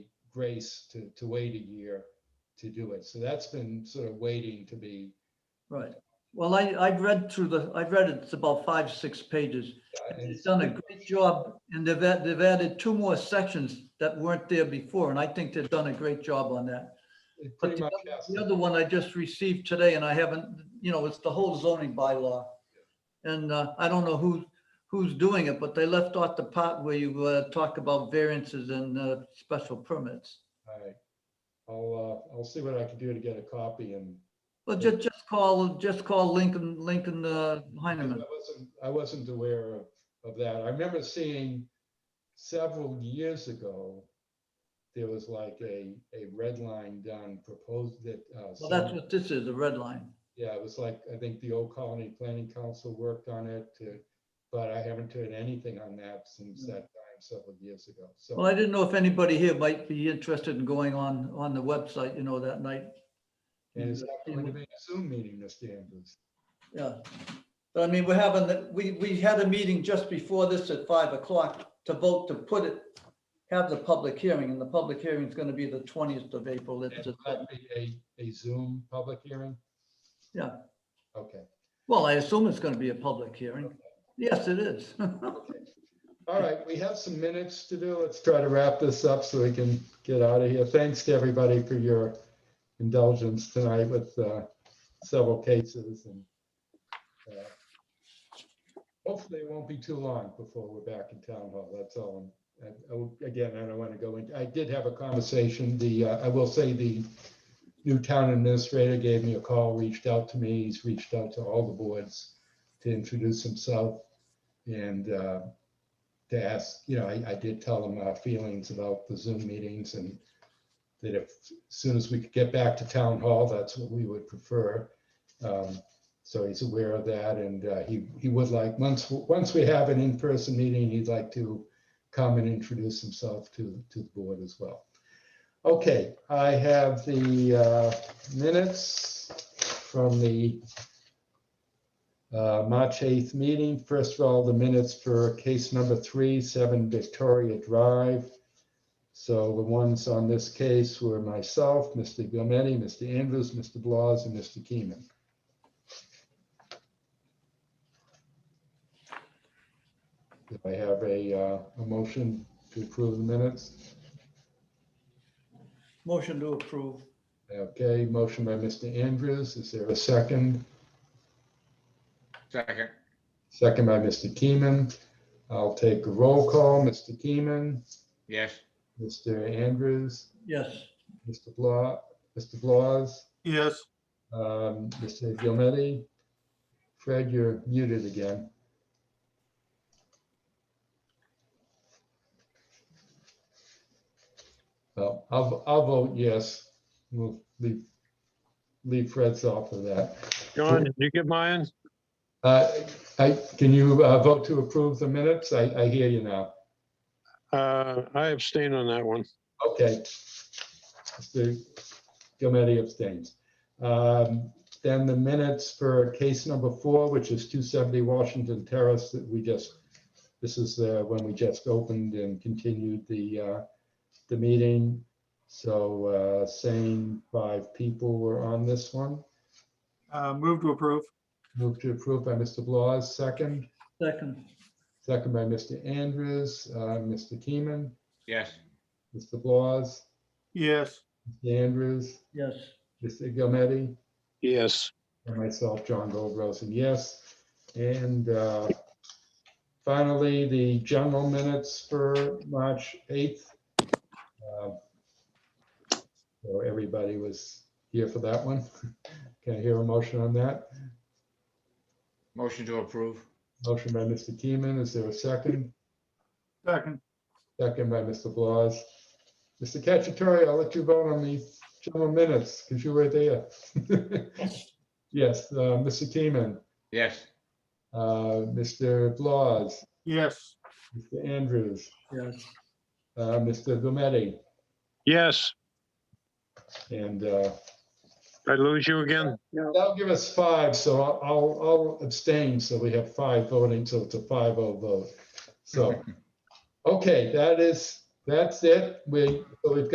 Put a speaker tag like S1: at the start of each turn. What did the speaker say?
S1: grace to, to wait a year to do it. So that's been sort of waiting to be,
S2: Right. Well, I, I've read through the, I've read it, it's about five, six pages.
S1: uh, and
S2: It's done a great job and they've, add- they've added two more sections that weren't there before, and I think they've done a great job on that.
S1: it
S2: But
S1: pretty
S2: the
S1: much
S2: other-
S1: has.
S2: The other one I just received today and I haven't, you know, it's the whole zoning bylaw. And uh, I don't know who, who's doing it, but they left out the part where you uh, talk about variances and uh, special permits.
S1: All right. I'll, uh, I'll see what I can do to get a copy and
S2: Well, just, just call, just call Lincoln, Lincoln uh,
S1: I
S2: Heineman.
S1: wasn't, I wasn't aware of, of that. I remember seeing several years ago, there was like a, a red line done proposed that. uh,
S2: Well, that's
S1: some-
S2: what this is, a red line.
S1: Yeah, it was like, I think the Old Colony Planning Council worked on it to, but I haven't heard anything on that since
S2: No.
S1: that time several years ago. So,
S2: Well, I didn't know if anybody here might be interested in going on, on the website, you know, that night.
S1: and it's not going to be a Zoom meeting, Mr. Andrews.
S2: Yeah. But I mean, we're having, the- we, we had a meeting just before this at five o'clock to vote to put it, have the public hearing, and the public hearing is going to be the twentieth of April. It's
S1: Will
S2: just-
S1: that be a, a Zoom public hearing?
S2: Yeah.
S1: Okay.
S2: Well, I assume it's going to be a public hearing. Yes, it is.
S1: All right, we have some minutes to do. Let's try to wrap this up so we can get out of here. Thanks to everybody for your indulgence tonight with uh, several cases and uh, hopefully it won't be too long before we're back in town hall. That's all. And I will- Again, I don't want to go into, I did have a conversation, the, uh, I will say the new town administrator gave me a call, reached out to me. He's reached out to all the boards to introduce himself. And uh, to ask, you know, I, I did tell them our feelings about the Zoom meetings and that if, as soon as we could get back to town hall, that's what we would prefer. Um, So he's aware of that and uh, he, he would like, once, once we have an in-person meeting, he'd like to come and introduce himself to, to the board as well. Okay, I have the uh, minutes from the uh, March 8th meeting. First of all, the minutes for case number three, 7 Victoria Drive. So the ones on this case were myself, Mr. Gometti, Mr. Andrews, Mr. Blas, and Mr. Keeman. Do I have a, uh, a motion to approve the minutes?
S2: Motion to approve.
S1: Okay, motion by Mr. Andrews. Is there a second?
S3: Second,
S1: Second by Mr. Keeman. I'll take a roll call. Mr. Keeman,
S3: yes,
S1: Mr. Andrews,
S2: Yes.
S1: Mr. Blah, Mr. Blas,
S4: Yes,
S1: um, Mr. Gilmetti. Fred, you're muted again. Well, I'll, I'll vote yes. We'll leave, leave Fred's off of that.
S5: John, did you get mine?
S1: Uh, I, can you uh, vote to approve the minutes? I, I hear you now.
S5: Uh, I abstain on that one.
S1: Okay. Mr. Gilmedi abstains. Um, Then the minutes for case number four, which is 270 Washington Terrace that we just, this is uh, when we just opened and continued the, uh, the meeting. So uh, same five people were on this one.
S4: uh, move to approve.
S1: Move to approve by Mr. Blas, second.
S2: Second.
S1: Second by Mr. Andrews, uh, Mr. Keeman,
S3: yes,
S1: Mr. Blas,
S4: Yes,
S1: Mr. Andrews,
S2: Yes.
S1: Mr. Gilmedi.
S5: Yes,
S1: And myself, John Goldrosen, yes. And uh, finally, the general minutes for March 8th. Um, So everybody was here for that one. Can I hear a motion on that?
S3: motion to approve,
S1: Motion by Mr. Keeman, is there a second?
S4: second.
S1: Second by Mr. Blas. Mr. Cacciatore, I'll let you vote on the general minutes because you were there. Yes, uh, Mr. Keeman,
S3: yes,
S1: uh, Mr. Blas.
S4: Yes,
S1: Mr. Andrews,
S2: Yes.
S1: uh, Mr. Gometti,
S5: yes.
S1: and uh,
S5: I lose you again?
S1: that'll give us five, so I'll- I'll, I'll abstain, so we have five voting, so it's a 5-0 vote. So, okay, that is, that's it. We, so we've got